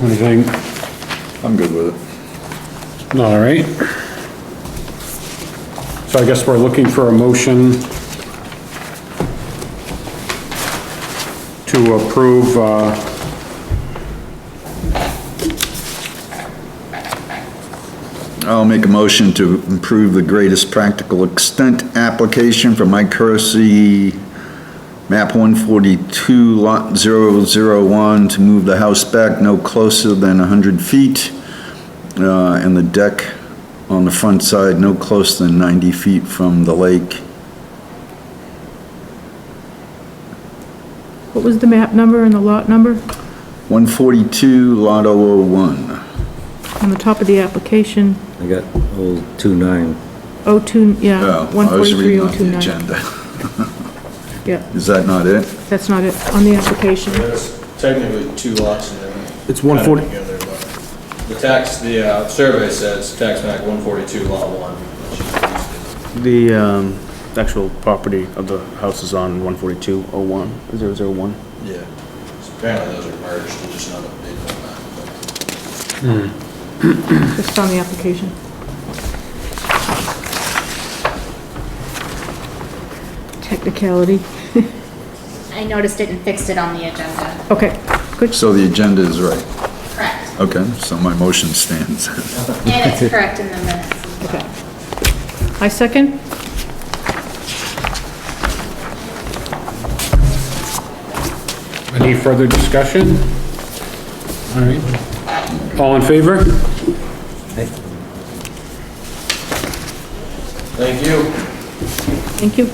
What do you think? I'm good with it. All right. So I guess we're looking for a motion to approve, uh, I'll make a motion to improve the greatest practical extent application for Mike Cursey, map 142, lot 001, to move the house back no closer than 100 feet, uh, and the deck on the front side no closer than 90 feet from the lake. What was the map number and the lot number? 142, lot 001. On the top of the application, I got old two nine. 02, yeah, Oh, I was reading on the 143029. agenda. Yeah, Is that not it? that's not it, on the application. There's technically two lots in there. It's Kind of 140 together, but The tax, the uh, survey says tax map 142, lot 1. The um, actual property of the house is on 14201, 001. Yeah. Apparently those are merged, they're just not updated on that. It's on the application. Technicality. I noticed it and fixed it on the agenda. Okay, good. So the agenda is right. Correct. Okay, so my motion stands. And it's correct in the minutes as well. Okay. I second. any further discussion? All right. All in favor? Thank you. Thank you.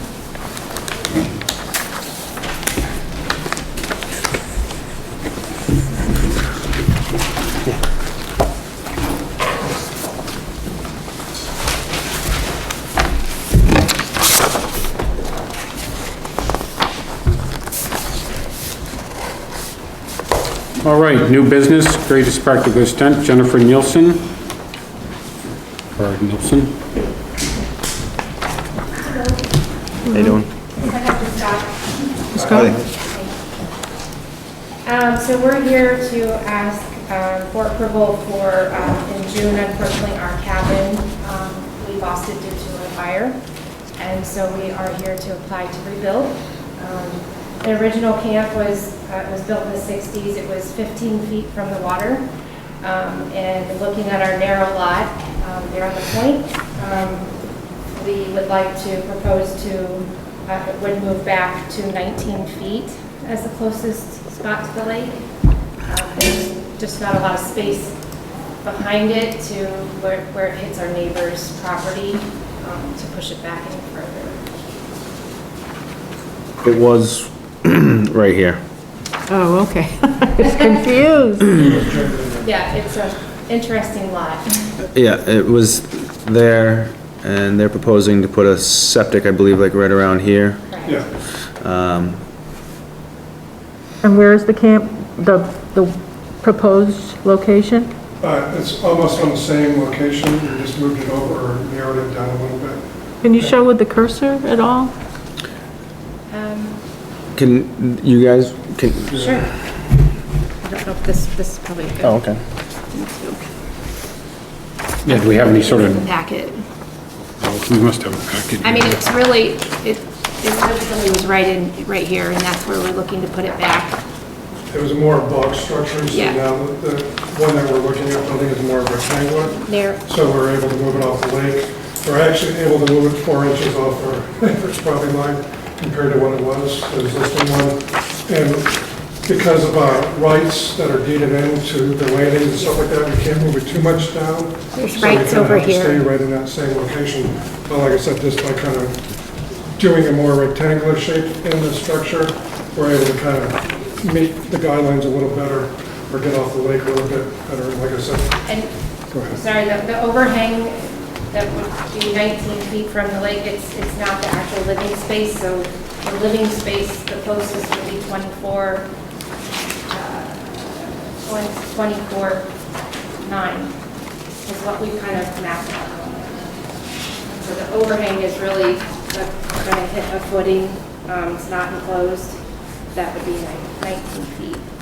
All right, new business, greatest practical extent, Jennifer Nielsen. Or Nielsen? How you doing? Scott? Um, so we're here to ask, um, for approval for, um, in June, unfortunately, our cabin, um, we lost it due to a fire. And so we are here to apply to rebuild. Um, The original camp was, uh, was built in the sixties, it was fifteen feet from the water. Um, and looking at our narrow lot, um, there on the point, um, we would like to propose to, uh, it would move back to 19 feet as the closest spot to the lake. Uh, There's just not a lot of space behind it to where where it hits our neighbor's property, um, to push it back any further. It was right here. Oh, okay. It's confused. Yeah, it's an interesting lot. Yeah, it was there, and they're proposing to put a septic, I believe, like right around here. Correct. And where is the camp, the, the proposed location? Uh, It's almost on the same location, we just moved it over, or narrowed it down a little bit. Can you show with the cursor at all? Um, Can, you guys, can, Sure. I don't know if this, this is probably a oh, good okay. Yeah, do we have any sort of, packet. we must have a package. I mean, it's really, it, it really was right in, right here, and that's where we're looking to put it back. It was more block structure, so Yeah. now the the one that we're looking at, I think is more rectangular, There, so we're able to move it off the lake. We're actually able to move it four inches off our average property line compared to what it was, the existing one. And because of our rights that are deeded into the landing and stuff like that, we can't move it too much down. There's So we rights kinda over have to here. Stay right in that same location. But like I said, just by kind of doing a more rectangular shape in the structure, we're able to kind of meet the guidelines a little better, or get off the lake a little bit better, like I said. and, Go ahead. sorry, the the overhang that would be 19 feet from the lake, it's, it's not the actual living space, so the living space, the closest would be 24, uh, 24, 9, is what we kind of mapped out. So the overhang is really going to hit a footing, um, it's not enclosed, that would be like 19 feet.